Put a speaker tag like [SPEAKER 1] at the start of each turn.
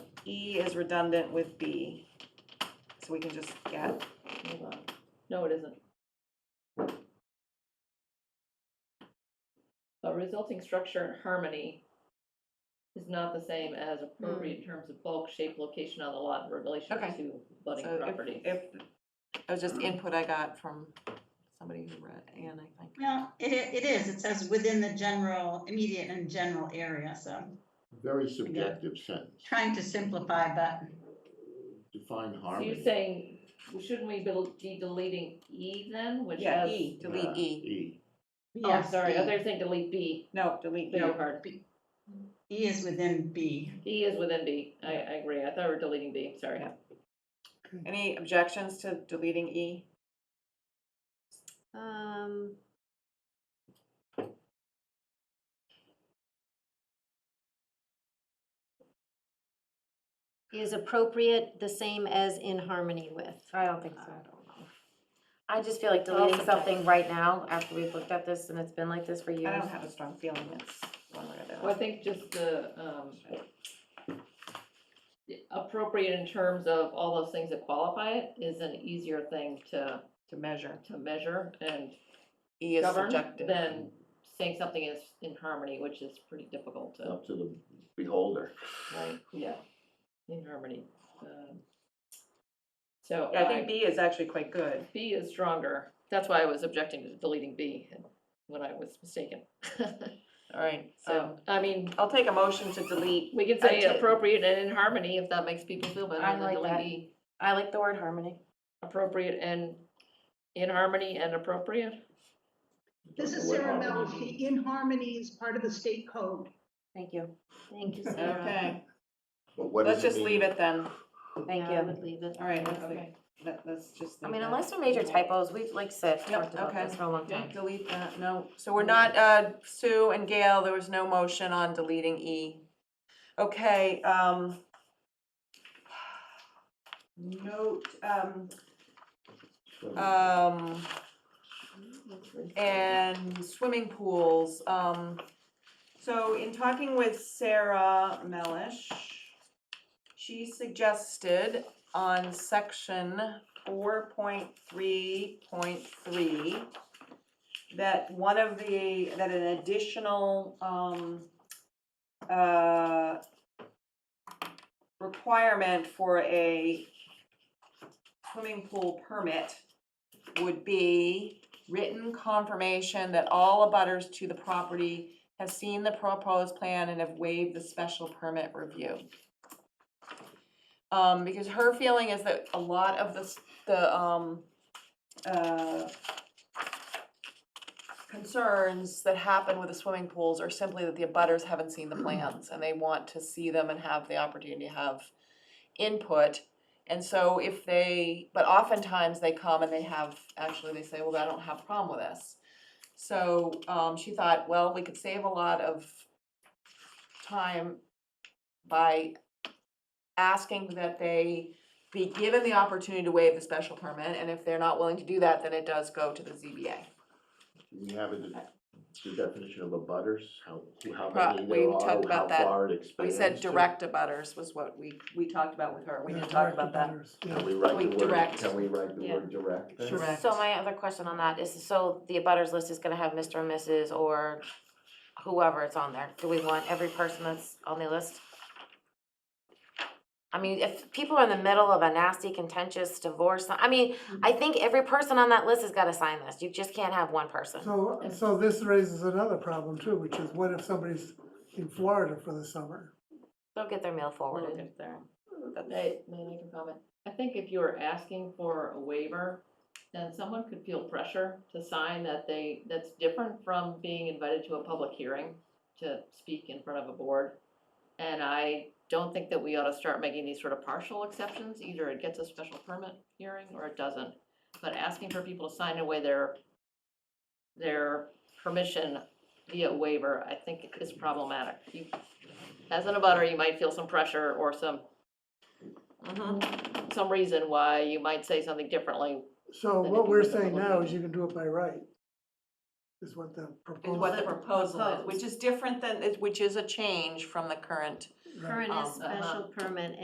[SPEAKER 1] E is redundant with B, so we can just get,
[SPEAKER 2] Hold on. No, it isn't. A resulting structure and harmony is not the same as appropriate in terms of bulk, shape, location on the lot in relation
[SPEAKER 1] Hmm. Okay.
[SPEAKER 2] to budding
[SPEAKER 1] so
[SPEAKER 2] property.
[SPEAKER 1] if, if, that was just input I got from somebody who read Anne, I think.
[SPEAKER 3] Well, it, it is, it says within the general, immediate and general area, so
[SPEAKER 4] Very subjective sentence.
[SPEAKER 3] trying to simplify, but
[SPEAKER 4] Define
[SPEAKER 2] So
[SPEAKER 4] harmony.
[SPEAKER 2] you're saying, shouldn't we be- be deleting E then, which
[SPEAKER 1] Yeah,
[SPEAKER 2] has?
[SPEAKER 1] E,
[SPEAKER 4] Uh,
[SPEAKER 1] delete E,
[SPEAKER 4] E.
[SPEAKER 2] Oh, I'm
[SPEAKER 3] yes.
[SPEAKER 2] sorry,
[SPEAKER 3] E-
[SPEAKER 2] I was saying delete B,
[SPEAKER 1] no, delete E.
[SPEAKER 2] beg your pardon.
[SPEAKER 3] E is within B.
[SPEAKER 2] E is within B, I, I agree, I thought we were deleting B, sorry.
[SPEAKER 1] Yeah. Any objections to deleting E?
[SPEAKER 5] Um, Is appropriate the same as in harmony with?
[SPEAKER 6] I don't think
[SPEAKER 5] I
[SPEAKER 6] so.
[SPEAKER 5] don't know.
[SPEAKER 6] I just feel like
[SPEAKER 5] I'll
[SPEAKER 6] deleting
[SPEAKER 5] second.
[SPEAKER 6] something right now after we've looked at this and it's been like this for
[SPEAKER 1] I
[SPEAKER 6] years.
[SPEAKER 1] don't have a strong feeling it's one way or the
[SPEAKER 2] Well, I
[SPEAKER 1] other.
[SPEAKER 2] think just the, um, appropriate in terms of all those things that qualify it is an easier thing to,
[SPEAKER 1] To measure,
[SPEAKER 2] to measure and
[SPEAKER 1] E is
[SPEAKER 2] govern
[SPEAKER 1] subjective.
[SPEAKER 2] than saying something is in harmony, which is pretty difficult to,
[SPEAKER 7] up to the beholder.
[SPEAKER 2] right, yeah, in harmony. um, So
[SPEAKER 1] Yeah, I think
[SPEAKER 2] I-
[SPEAKER 1] B is actually quite good.
[SPEAKER 2] B is stronger, that's why I was objecting to deleting B when I was mistaken.
[SPEAKER 1] All right, so
[SPEAKER 2] So, I mean,
[SPEAKER 1] I'll take a motion to delete.
[SPEAKER 2] we can
[SPEAKER 1] I
[SPEAKER 2] say
[SPEAKER 1] did-
[SPEAKER 2] appropriate and in harmony if that makes people feel better
[SPEAKER 6] I
[SPEAKER 2] than
[SPEAKER 6] like
[SPEAKER 2] delete
[SPEAKER 6] that.
[SPEAKER 2] E.
[SPEAKER 6] I like the word harmony.
[SPEAKER 2] appropriate and in harmony and appropriate?
[SPEAKER 8] This is E.
[SPEAKER 7] What
[SPEAKER 8] Sarah
[SPEAKER 7] harmony
[SPEAKER 8] Melfi.
[SPEAKER 7] means.
[SPEAKER 8] In harmony is part of the state code.
[SPEAKER 6] Thank you.
[SPEAKER 5] Thank you, Sarah.
[SPEAKER 1] Okay,
[SPEAKER 7] But what
[SPEAKER 1] let's
[SPEAKER 7] does it
[SPEAKER 1] just leave
[SPEAKER 7] mean?
[SPEAKER 1] it then.
[SPEAKER 6] Thank
[SPEAKER 5] Yeah, I
[SPEAKER 6] you.
[SPEAKER 5] would leave it.
[SPEAKER 1] All right, let's leave,
[SPEAKER 2] Okay.
[SPEAKER 1] let, let's just.
[SPEAKER 6] I
[SPEAKER 1] leave
[SPEAKER 6] mean,
[SPEAKER 1] that.
[SPEAKER 6] unless there are major typos, we've like said,
[SPEAKER 1] Yep,
[SPEAKER 6] talked about
[SPEAKER 1] okay.
[SPEAKER 6] this for a long
[SPEAKER 1] Okay,
[SPEAKER 6] time.
[SPEAKER 1] delete that, no, so we're not, uh, Sue and Gail, there was no motion on deleting E. Okay, um. Note, um, um, and swimming pools, um. So in talking with Sarah Melish, she suggested on section four point three point three that one of the, that an additional, um, uh, requirement for a swimming pool permit would be written confirmation that all abutters to the property have seen the proposed plan and have waived the special permit review. Um, because her feeling is that a lot of the, s- the, um, uh, concerns that happen with the swimming pools are simply that the abutters haven't seen the plans and they want to see them and have the opportunity to have input. And so if they, but oftentimes they come and they have, actually they say, well, I don't have a problem with this. So, um, she thought, well, we could save a lot of time by asking that they be given the opportunity to waive the special permit, and if they're not willing to do that, then it does go to the ZBA.
[SPEAKER 4] We have a, the definition of a butters, how, who- how
[SPEAKER 1] Right,
[SPEAKER 4] many
[SPEAKER 1] we
[SPEAKER 4] there are,
[SPEAKER 1] talked
[SPEAKER 4] how
[SPEAKER 1] about that.
[SPEAKER 4] far it
[SPEAKER 1] We
[SPEAKER 4] expands.
[SPEAKER 1] said
[SPEAKER 4] to.
[SPEAKER 1] direct abutters was what we, we talked about with her, we didn't talk about that.
[SPEAKER 4] Can we write
[SPEAKER 1] We
[SPEAKER 4] the word,
[SPEAKER 1] direct.
[SPEAKER 4] can we write the
[SPEAKER 5] Yeah.
[SPEAKER 4] word direct? then?
[SPEAKER 1] Direct.
[SPEAKER 6] So my other question on that is, so the abutters list is gonna have Mr. and Mrs. or whoever it's on there. Do we want every person that's on the list? I mean, if people are in the middle of a nasty contentious divorce, I mean,
[SPEAKER 1] Mm-hmm.
[SPEAKER 6] I think every person on that list has gotta sign this. You just can't have one person.
[SPEAKER 9] So, so this raises another problem too, which is what if somebody's in Florida for the summer?
[SPEAKER 6] They'll get their mail
[SPEAKER 2] Or
[SPEAKER 6] forwarded.
[SPEAKER 2] if they're- May, may I make a comment? I think if you were asking for a waiver, then someone could feel pressure to sign that they, that's different from being invited to a public hearing to speak in front of a board. And I don't think that we ought to start making these sort of partial exceptions, either it gets a special permit hearing or it doesn't. But asking for people to sign away their, their permission via waiver, I think is problematic. You, as an abutter, you might feel some pressure or some
[SPEAKER 1] Mhm.
[SPEAKER 2] some reason why you might say something differently.
[SPEAKER 9] So
[SPEAKER 2] Then if
[SPEAKER 9] what
[SPEAKER 2] you
[SPEAKER 9] we're
[SPEAKER 2] make a
[SPEAKER 9] saying
[SPEAKER 2] public
[SPEAKER 9] now is
[SPEAKER 2] meeting.
[SPEAKER 9] you can do it by right, is what the
[SPEAKER 1] Is what the
[SPEAKER 9] proposal.
[SPEAKER 1] proposal is, which is different than, which is a change from the current
[SPEAKER 9] right.
[SPEAKER 5] Current
[SPEAKER 1] Um,
[SPEAKER 6] uh-huh.
[SPEAKER 5] is special permit